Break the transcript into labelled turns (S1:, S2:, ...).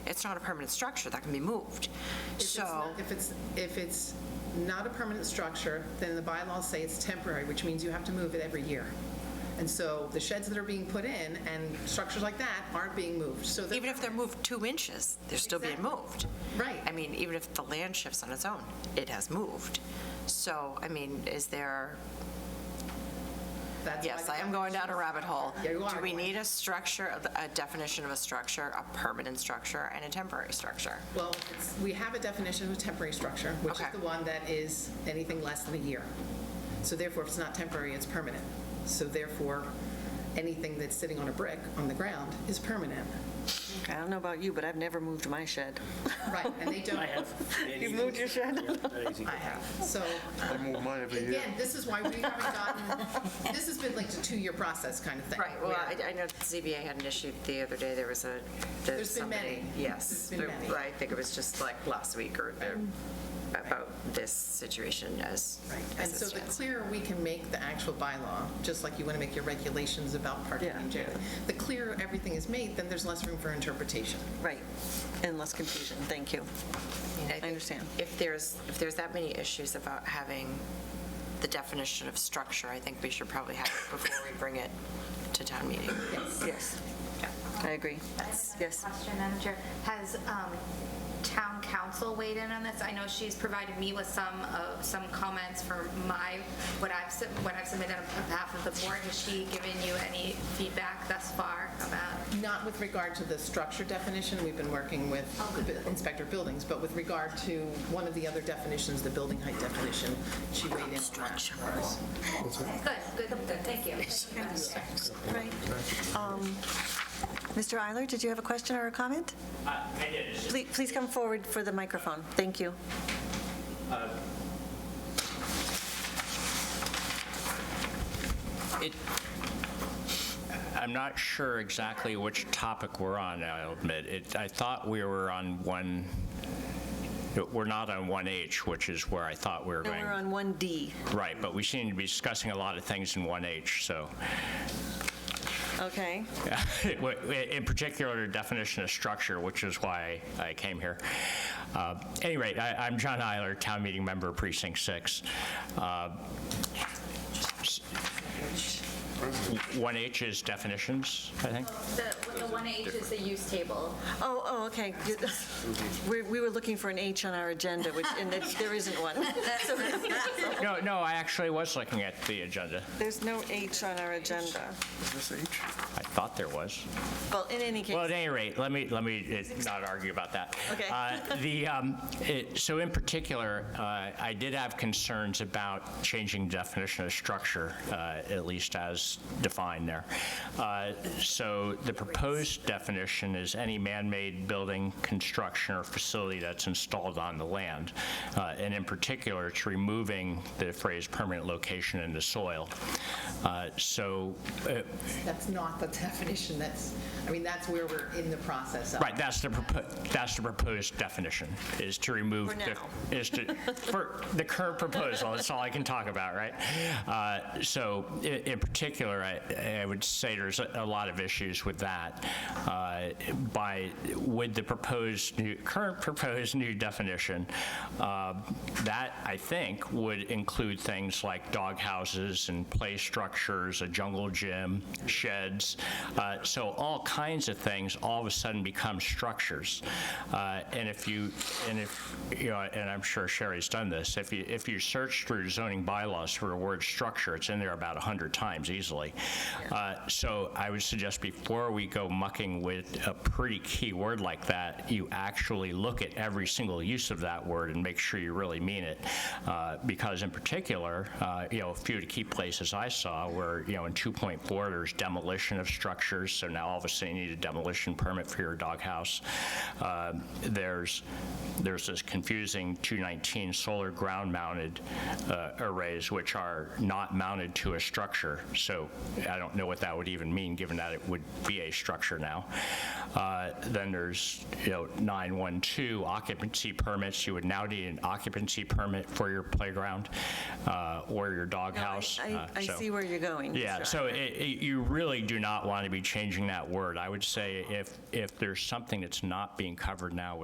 S1: it's not a permanent structure, that can be moved.
S2: If it's not-
S1: So,
S2: If it's, if it's not a permanent structure, then the bylaws say it's temporary, which means you have to move it every year. And so the sheds that are being put in and structures like that aren't being moved, so that.
S1: even if they're moved two inches, they're still being
S2: Exactly.
S1: moved.
S2: Right.
S1: I mean, even if the land shifts on its own, it has moved. So, I mean, is there,
S2: that's why
S1: yes,
S2: the
S1: I am going down a rabbit hole.
S2: Yeah, you are.
S1: Do we need a structure, of- a definition of a structure, a permanent structure and a temporary structure?
S2: Well, it's- we have a definition of a temporary structure, which is
S1: Okay.
S2: the one that is anything less than a year. So therefore, if it's not temporary, it's permanent. So therefore, anything that's sitting on a brick on the ground is permanent.
S3: I don't know about you, but I've never moved my shed.
S2: Right, and they don't. I have.
S3: You moved your shed?
S2: I have. So
S4: I move mine every year.
S2: again, this is why we haven't gotten, this has been like a two-year process kind of thing.
S1: Right, well,
S2: where-
S1: I, I know the ZBA had an issue the other day, there was a, there's
S2: There's been
S1: somebody.
S2: many.
S1: Yes.
S2: There's been
S1: there-
S2: many.
S1: I think it was just like last week or the- about this situation as,
S2: Right, and
S1: as
S2: so
S1: it
S2: the
S1: stands.
S2: clearer we can make the actual bylaw, just like you want to make your regulations about parking
S3: Yeah.
S2: in general, the clearer everything is made, then there's less room for interpretation.
S3: Right, and less confusion, thank you.
S1: mean,
S3: I
S1: think
S3: understand.
S1: If there's, if there's that many issues about having the definition of structure, I think we should probably have it before we bring it to town meeting.
S3: Yes, I agree. Yes.
S5: Question, Manager. Has um, town council weighed in on this? I know she's provided me with some, of some comments for my, what I've, sub- what I've submitted on behalf of the board. Has she given you any feedback thus far about?
S2: Not with regard to the structure definition, we've been working with the Inspector of Buildings, but with regard to one of the other definitions, the building height definition, she weighed in on that.
S5: Good, good, good, thank you.
S3: Mr. Um, Eiler, did you have a question or a comment?
S6: Uh, I did, it's just,
S3: Please please come forward for the microphone, thank you.
S6: it, I'm not sure exactly which topic we're on, I'll admit. It, I thought we were on one, we're not on 1H, which is where I thought we were
S3: And
S6: going.
S3: we're on 1D,
S6: Right, but we seem to be discussing a lot of things in 1H, so.
S3: okay?
S6: in particular, the definition of structure, which is why I came here. Uh, At any rate, I- I'm John Eiler, Town Meeting Member, Precinct 6. Uh, s- 1H is definitions, I think?
S5: The, the 1H is the use table.
S3: Oh, oh, okay. We we were looking for an H on our agenda, which, and it- there isn't one. So
S6: No, no, I actually was looking at the agenda.
S3: There's no H on our agenda.
S4: Is this H?
S6: I thought there was.
S3: Well, in any
S6: Well, at
S3: case,
S6: any rate, let me, let me uh, not argue about that.
S3: Okay.
S6: Uh, The, um, it- so in particular, uh, I did have concerns about changing definition of structure, uh, at least as defined there. Uh, So the proposed definition is any man-made building, construction, or facility that's installed on the land. Uh, And in particular, it's removing the phrase permanent location in the soil. Uh, So uh,
S2: That's not the definition, that's, I mean, that's where we're in the process of.
S6: Right, that's the, propo- that's the proposed definition, is to remove.
S3: For
S6: the-
S3: now.
S6: Is to, for the current proposal, that's all I can talk about, right? Uh, So i- in particular, I, I would say there's a a lot of issues with that. Uh, By, with the proposed, new current proposed new definition, uh, that, I think, would include things like dog houses and play structures, a jungle gym, sheds. Uh, So all kinds of things all of a sudden become structures. Uh, And if you, and if, you know, and I'm sure Sherry's done this, if you, if you search through zoning bylaws for the word structure, it's in there about 100 times easily. Uh, So I would suggest before we go mucking with a pretty key word like that, you actually look at every single use of that word and make sure you really mean it. Uh, Because in particular, uh, you know, a few of the key places I saw were, you know, in 2.4, there's demolition of structures, so now all of a sudden you need a demolition permit for your doghouse. Uh, There's, there's this confusing 219 solar ground-mounted uh, arrays, which are not mounted to a structure. So I don't know what that would even mean, given that it would be a structure structure now. Uh, Then there's, you know, 912 occupancy permits. You would now need an occupancy permit for your playground uh, or your doghouse.
S3: I
S6: uh,
S3: I
S6: so-
S3: see where you're going.
S6: yeah, so it, it, you really do not want to be changing that word. I would say if if there's something that's not being covered now,